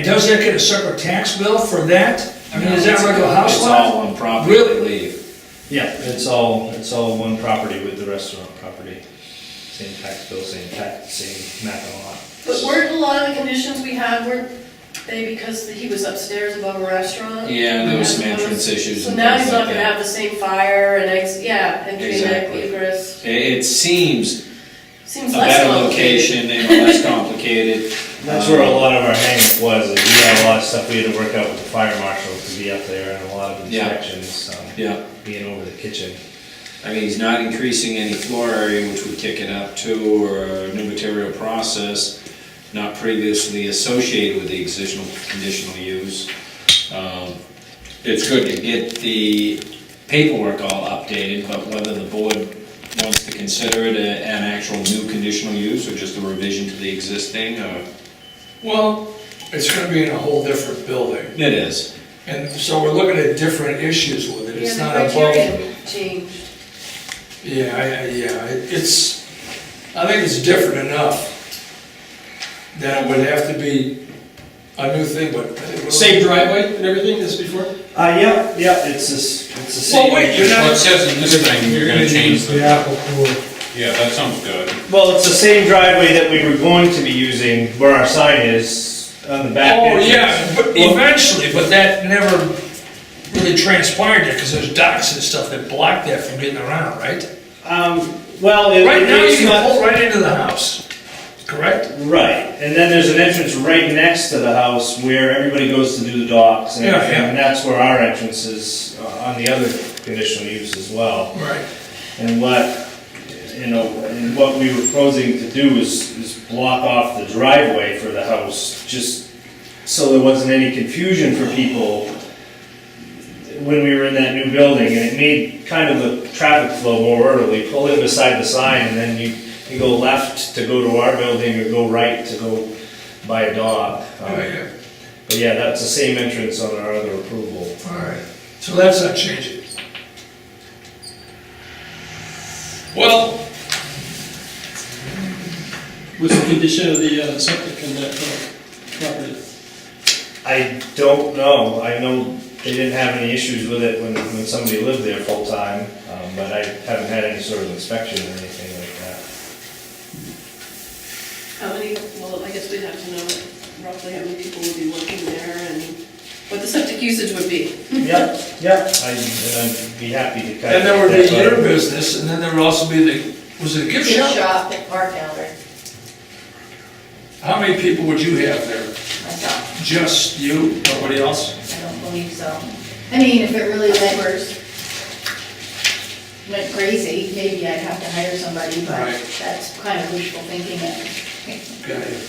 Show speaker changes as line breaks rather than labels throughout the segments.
does that get a separate tax bill for that? I mean, is that
No, it's-
regular house
It's
lot?
all one property, I
Really?
believe.
Yeah, it's all, it's all one property with the restaurant property. Same tax bill, same tax, same map lot.
But weren't a lot of the conditions we had, weren't they because he was upstairs above a restaurant?
Yeah, there was some
And
entrance issues
So
and
now
things
he's not
like
gonna
that.
have the same fire and, ex- yeah, entry and
Exactly.
egress.
It, it seems a
Seems less
better
complicated.
location and less complicated. Um,
That's where a lot of our hangup was, is we had a lot of stuff we had to work out with the fire marshal to be up there and a lot of
Yeah.
inspections, um,
Yeah,
being over the kitchen.
I mean, he's not increasing any floor area, which would kick it up to, or a new material process not previously associated with the existing conditional use. Um, It's good to get the paperwork all updated, but whether the board wants to consider it a- an actual new conditional use or just a revision to the existing, uh, or,
Well, it's gonna be in a whole different building,
it is.
and so we're looking at different issues with it,
Yeah,
it's not
the
above.
criteria changed.
Yeah, I, I- yeah, it- it's, I think it's different enough that it would have to be a new thing, but.
Same driveway and everything as before?
Uh, yeah, yeah, it's this, it's the
Well,
same.
wait, you're
Well, it
not,
says in this thing, you're gonna change the,
apple pool.
yeah, that sounds good.
Well, it's the same driveway that we were going to be using where our sign is on the back.
oh,
entrance.
yeah, but eventually, but that never really transpired yet, because there's docks and stuff that block that from getting around, right?
Um, well, it-
Right now, you
it's
can
not,
pull right into the house, correct?
right, and then there's an entrance right next to the house where everybody goes to do the docks. and
Yeah,
everything,
yeah.
And that's where our entrance is uh, on the other conditional use as well.
Right.
And what, you know, and what we were proposing to do is, is block off the driveway for the house, just so there wasn't any confusion for people when we were in that new building, and it made kind of the traffic flow more orderly, pull in beside the sign, and then you, you go left to go to our building, or go right to go buy a dog. Um,
Oh, yeah,
But yeah, that's the same entrance on our other approval.
all right, so that's not changing. Well,
Was the condition of the uh, septic in that uh, property?
I don't know, I know they didn't have any issues with it when, when somebody lived there full-time, um, but I haven't had any sort of inspection or anything like that.
How many, well, I guess we'd have to know roughly how many people would be working there and what the septic usage would be.
Yep, yep. I, and I'd be happy to kind of.
and there would be
that's
your
what-
business, and then there would also be the, was it a gift
gift
shop?
shop at Park Elder,
How many people would you have there?
myself,
Just you, nobody else?
I don't believe so. I mean, if it really went, went crazy, maybe I'd have to hire somebody, but
Right.
that's kind of wishful thinking.
Okay.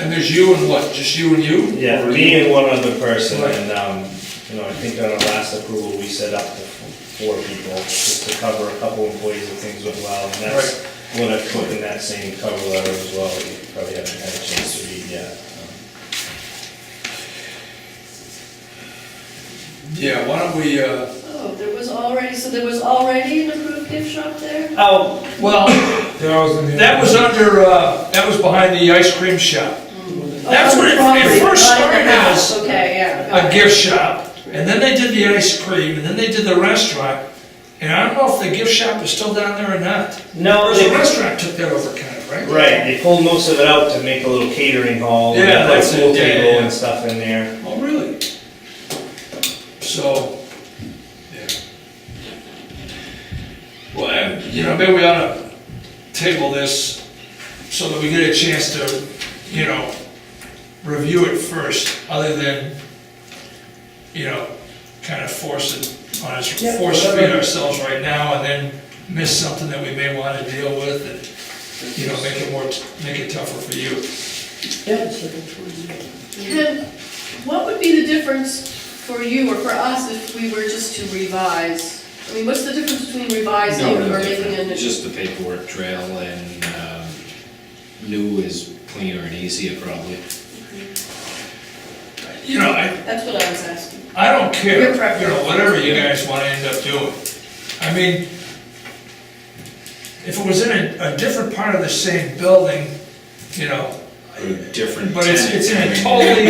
And there's you and what, just you and you?
Yeah,
Or
me and one other person,
Right.
and, um, you know, I think on our last approval, we set up to four people, just to cover a couple employees if things went well, and that's what I put in that same cover letter as well, you probably haven't had a chance to read yet. um.
Yeah, why don't we, uh,
Oh, there was already, so there was already an approved gift shop there?
Oh,
well, that was under, uh, that was behind the ice cream shop. That's
Oh,
what it- it
property,
first
not in the
started
house.
as
Okay, yeah. got
a
it.
gift shop, and then they did the ice cream, and then they did the restaurant. And I don't know if the gift shop is still down there or not.
no,
Or the
they-
restaurant took that over kind of, right?
Right, they pulled most of it out to make a little catering hall, and
Yeah,
a
that's it,
pool
yeah, yeah,
table
yeah.
and stuff in there.
Oh, really? So, yeah. Well, I- you know, maybe we ought to table this so that we get a chance to, you know, review it first, other than, you know, kind of force it on us,
Yeah,
force feed
whatever.
ourselves right now and then miss something that we may want to deal with and, you know, make it more, t- make it tougher for you.
Then, what would be the difference for you or for us if we were just to revise? I mean, what's the difference between revising
No,
or
no
making
different,
a new?
just the paperwork trail and, um, new is cleaner and easier probably.
You know, I,
That's what I was asking.
I don't care,
Your preference.
you know, whatever you guys wanna end up doing. I mean, if it was in a, a different part of the same building, you know,
Or different.
but it's,
tenant.
it's in
I
a
mean,
totally